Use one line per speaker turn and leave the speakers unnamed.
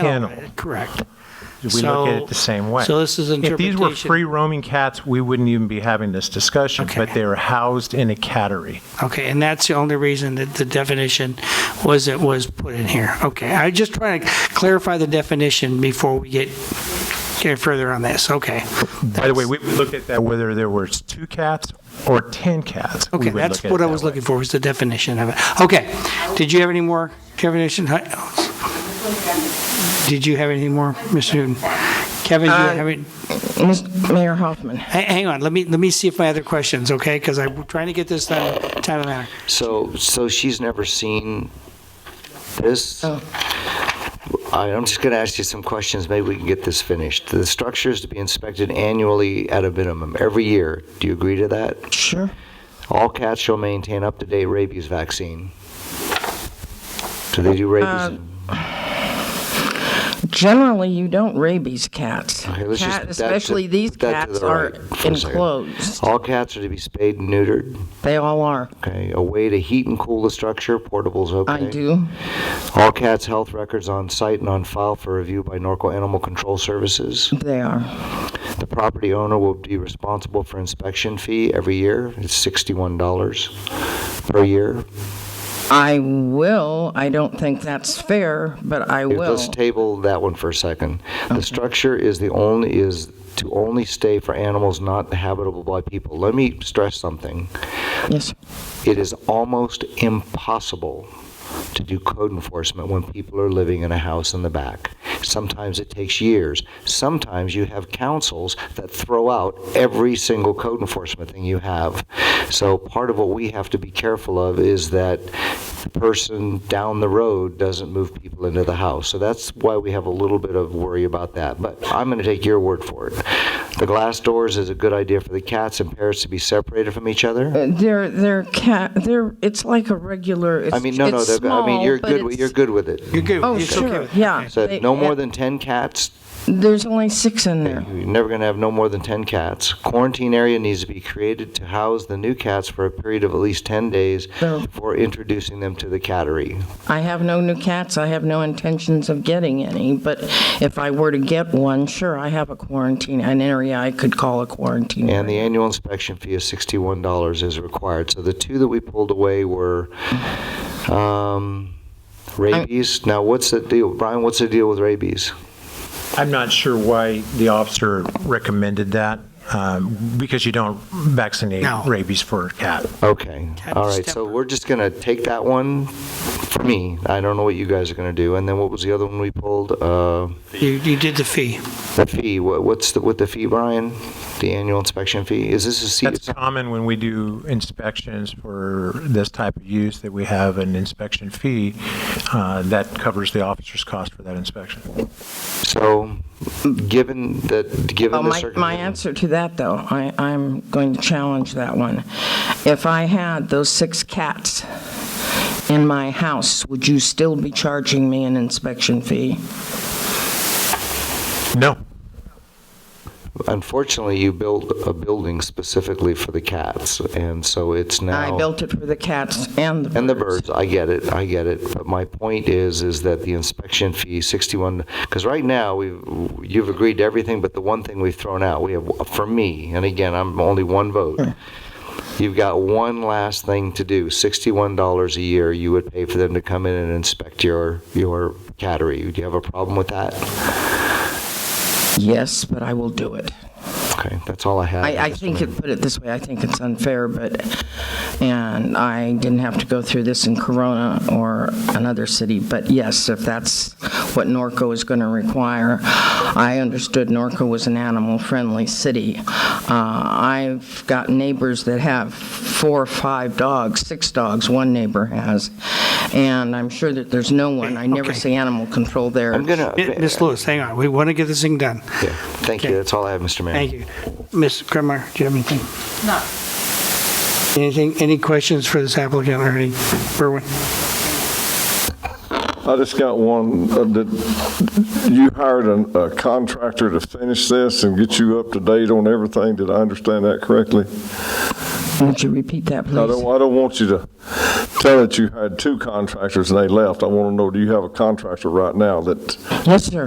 kennel.
Oh, Correct.
We look at
So-
it the same way.
so this is
If these were
interpretation.
free roaming cats, we wouldn't even be having this discussion,
Okay.
but they are housed in a cattery.
Okay, and that's the only reason that the definition was, it was put in here. Okay, I just trying to clarify the definition before we get, get further on this, okay.
By the way, we would look at that whether there were two cats or 10 cats. We
Okay,
would
that's
look at
what
it
I
that
was
way.
looking for, was the definition of it. Okay, did you have any more definition? Did you have any more, Mr. Newton? Kevin, do you have any?
Ms. Mayor Hoffman.
Hey, Hang on, let me, let me see if my other questions, okay? Because I'm trying to get this done in time and manner.
So, so she's never seen this?
Oh.
I- I'm just going to ask you some questions, maybe we can get this finished. The structure is to be inspected annually at a minimum, every year. Do you agree to that?
Sure.
All cats shall maintain up-to-date rabies vaccine. So they do
Uh,
rabies?
Generally, you don't rabies cats.
Okay, let's just-
Cat-
that's to-
Especially these
that's to
cats
the
are
right for a second.
enclosed.
All cats are to be spayed and neutered,
They all are.
okay? A way to heat and cool the structure, portable's okay?
I do.
All cats' health records on site and on file for review by Norco Animal Control Services.
They are.
The property owner will be responsible for inspection fee every year. It's sixty-one dollars per year.
I will. I don't think that's fair, but I will.
Let's table that one for a second. The structure is the only, is to only stay for animals not habitable by people. Let me stress something.
Yes.
It is almost impossible to do code enforcement when people are living in a house in the back. Sometimes it takes years. Sometimes you have councils that throw out every single code enforcement thing you have. So part of what we have to be careful of is that the person down the road doesn't move people into the house. So that's why we have a little bit of worry about that. But I'm going to take your word for it. The glass doors is a good idea for the cats and parrots to be separated from each other.
Uh, They're they're cat. They're it's like a regular. It's,
I mean, no, no,
it's
they're-
small,
I mean, you're
but
good, with-
it's-
you're good with it.
You're good,
Oh,
it's okay
sure.
with-
Yeah.
So
They-
no more
uh,
than 10 cats,
There's only six in there.
you're never going to have no more than 10 cats. Quarantine area needs to be created to house the new cats for a period of at least 10 days
No.
before introducing them to the cattery.
I have no new cats. I have no intentions of getting any. But if I were to get one, sure, I have a quarantine, an area I could call a quarantine.
And the
area.
annual inspection fee of $61 is required. So the two that we pulled away were um, rabies. Now, what's the deal, Brian, what's the deal with rabies?
I'm not sure why the officer recommended that, um, because you don't vaccinate
No.
rabies for a cat.
Okay,
Cat
all right, so
stepper.
we're just gonna take that one for me. I don't know what you guys are gonna do. And then what was the other one we pulled? Uh,
You, you did the fee.
The fee, What- what's the, with the fee, Brian? The annual inspection fee? Is this a C?
That's common when we do inspections for this type of use, that we have an inspection fee uh, that covers the officer's cost for that inspection.
So, given that,
Well,
given the
Oh, my,
circumstances.
my answer to that, though, I, I'm going to challenge that one. If I had those six cats in my house, would you still be charging me an inspection fee?
No,
Unfortunately, you built a building specifically for the cats, and so it's now.
I built it for the cats and the
And the
birds.
birds, I get it, I get it. But my point is, is that the inspection fee, 61, because right now, we've, you've agreed to everything, but the one thing we've thrown out, we have, for me, and again, I'm only one vote. You've got one last thing to do, $61 a year you would pay for them to come in and inspect your, your cattery. Do you have a problem with that?
Yes, but I will do it.
Okay, that's all I have.
I, I think, it- put it this way, I think it's unfair, but, and I didn't have to go through this in Corona or another city, but yes, if that's what Norco is going to require, I understood Norco was an animal-friendly city. Uh, I've got neighbors that have four or five dogs, six dogs, one neighbor has, and I'm sure that there's no one, I never
Okay.
see animal control there.
I'm gonna,
Ms. Lewis, hang on, we want to get this thing done.
Yeah, thank you,
Okay.
that's all I have, Mr. Mayor.
Thank you. Ms. Kremer, do you have anything? No. Anything, any questions for this applicant or any, Berwin?
I just got one, uh, did- you hired an- a contractor to finish this and get you up to date on everything, did I understand that correctly?
Would you repeat that,
I don't,
please?
I don't want you to tell that you had two contractors and they left. I want to know, do you have a contractor right now that
Yes, sir.